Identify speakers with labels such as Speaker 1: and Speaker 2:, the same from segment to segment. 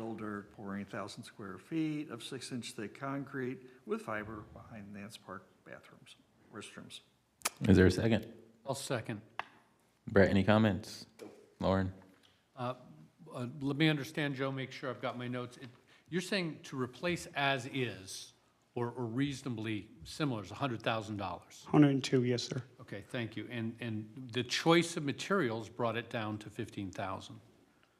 Speaker 1: builder pouring thousand square feet of six-inch thick concrete with fiber behind Nance Park bathrooms, restrooms.
Speaker 2: Is there a second?
Speaker 3: I'll second.
Speaker 2: Brett, any comments? Lauren?
Speaker 3: Uh, uh, Let me understand, Joe, make sure I've got my notes. It- You're saying to replace as is or or reasonably similar is $100,000?
Speaker 4: 102, yes, sir.
Speaker 3: Okay, thank you. And, and the choice of materials brought it down to 15,000.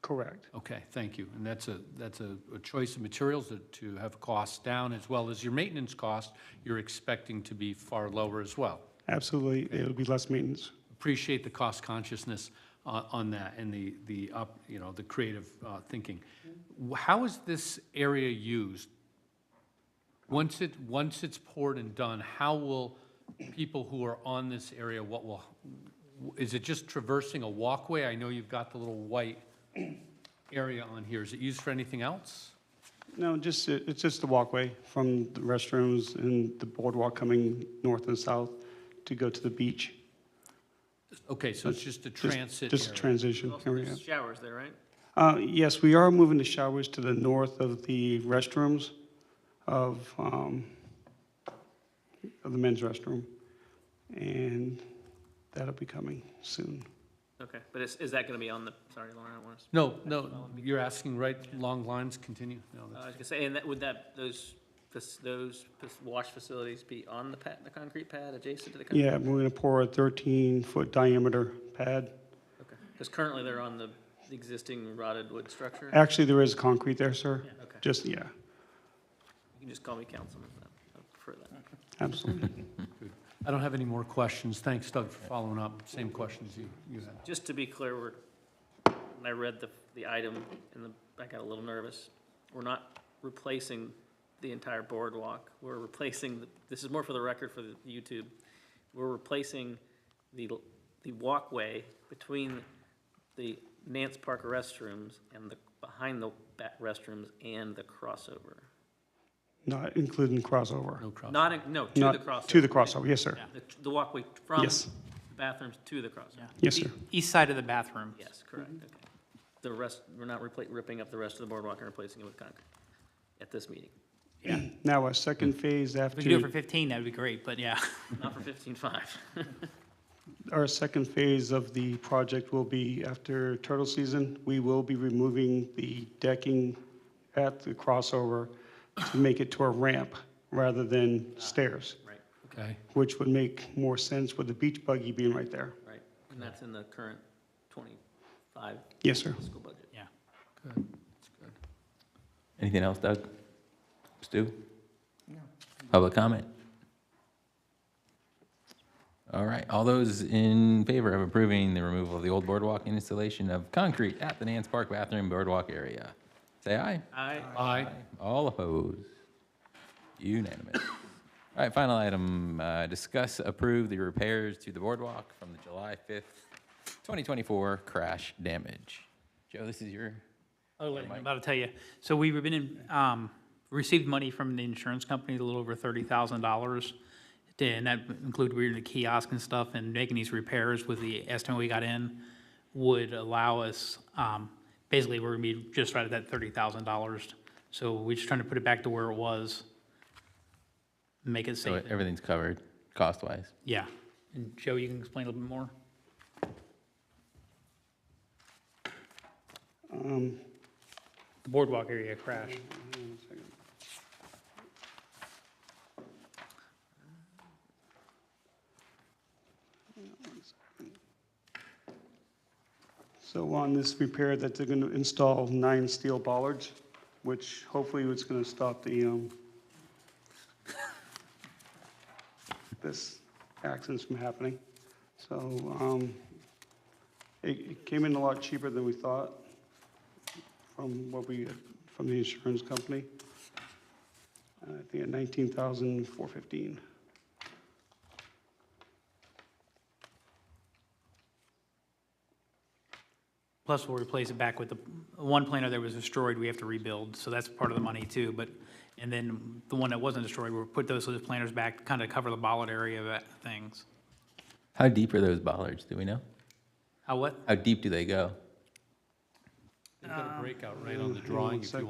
Speaker 4: Correct.
Speaker 3: Okay, thank you. And that's a, that's a a choice of materials that- to have costs down as well as your maintenance cost, you're expecting to be far lower as well.
Speaker 4: Absolutely, it'll be less maintenance.
Speaker 3: appreciate the cost consciousness on, on that and the, the, up you know, the creative uh, thinking. W- How is this area used? Once it, once it's poured and done, how will people who are on this area, what will, is it just traversing a walkway? I know you've got the little white area on here. Is it used for anything else?
Speaker 4: No, just, it- it's just the walkway from the restrooms and the boardwalk coming north and south to go to the beach.
Speaker 3: Okay, so it's just a
Speaker 4: Just-
Speaker 3: transit
Speaker 4: Just a
Speaker 3: area.
Speaker 4: transition
Speaker 5: Also,
Speaker 4: area.
Speaker 5: there's showers there, right?
Speaker 4: Uh, Yes, we are moving the showers to the north of the restrooms of, um, of the men's restroom. And that'll be coming soon.
Speaker 5: Okay, but is, is that gonna be on the, sorry, Lauren, I don't want to,
Speaker 3: No, no, you're asking, right, long lines continue? No, that's-
Speaker 5: uh, I was gonna say, and that, would that, those, fac- those fac- wash facilities be on the pad, the concrete pad adjacent to the concrete?
Speaker 4: Yeah, we're gonna pour a 13-foot diameter pad.
Speaker 5: Okay, because currently they're on the existing rotted wood structure.
Speaker 4: Actually, there is concrete there, sir.
Speaker 5: Okay,
Speaker 4: Just, yeah,
Speaker 5: you can just call me councilman, I prefer that.
Speaker 4: absolutely.
Speaker 3: I don't have any more questions. Thanks, Doug, for following up. Same questions you, you had.
Speaker 5: Just to be clear, we're, when I read the, the item and the, I got a little nervous. We're not replacing the entire boardwalk. We're replacing, the- this is more for the record for the YouTube. We're replacing the, the walkway between the Nance Park restrooms and the, behind the back restrooms and the crossover.
Speaker 4: Not including crossover.
Speaker 3: No cross.
Speaker 5: Not, in- no, to the
Speaker 4: Not-
Speaker 5: crossover.
Speaker 4: To the crossover, yes, sir.
Speaker 5: The, the walkway from
Speaker 4: Yes.
Speaker 5: the bathrooms to the crossover.
Speaker 4: Yes, sir.
Speaker 6: E-, East side of the bathroom.
Speaker 5: Yes, correct, okay. The rest, we're not repla- ripping up the rest of the boardwalk and replacing it with concrete at this meeting.
Speaker 4: Now, our second phase
Speaker 6: If Hmm. we could do it for
Speaker 4: after,
Speaker 6: 15, that'd be great, but yeah.
Speaker 5: Not for fifteen-five.
Speaker 4: our second phase of the project will be after turtle season. We will be removing the decking at the crossover to make it to a ramp rather than stairs,
Speaker 5: Ah, Right,
Speaker 3: Okay.
Speaker 4: which would make more sense with the beach buggy being right there.
Speaker 5: right. And that's in the current twenty-five
Speaker 4: Yes, sir.
Speaker 5: fiscal budget.
Speaker 2: Anything else, Doug? Stu? Public comment? All right, all those in favor of approving the removal of the old boardwalk and installation of concrete at the Nance Park bathroom boardwalk area, say aye.
Speaker 5: I,
Speaker 3: Aye.
Speaker 2: All opposed? Unanimous. All right, final item, uh, discuss approve the repairs to the boardwalk from the July 5th, 2024 crash damage. Joe, this is your,
Speaker 6: Oh, wait, I'm about to tell you. So we've been in, um, received money from the insurance company, a little over $30,000. And that included we were in the kiosk and stuff and making these repairs with the estimate we got in would allow us, um, basically we're gonna be just right at that $30,000. So we're just trying to put it back to where it was. Make it
Speaker 2: so
Speaker 6: safe.
Speaker 2: everything's covered cost-wise.
Speaker 6: Yeah. And Joe, you can explain a little bit more?
Speaker 4: Um,
Speaker 6: The boardwalk area crash.
Speaker 4: So on this repair that they're going to install nine steel bollards, which hopefully it's going to stop the, um, this accidents from happening. So, um, it, it came in a lot cheaper than we thought from what we, from the insurance company. Uh, I think at nineteen thousand four fifteen.
Speaker 6: Plus, we'll replace it back with the, one planter that was destroyed, we have to rebuild, so that's part of the money too, but, and then the one that wasn't destroyed, we'll put those, those planters back, kind of cover the bollard area of that things.
Speaker 2: How deep are those bollards, do we know?
Speaker 6: How what?
Speaker 2: How deep do they go?
Speaker 3: You've got a breakout right on the drawing if you
Speaker 4: second.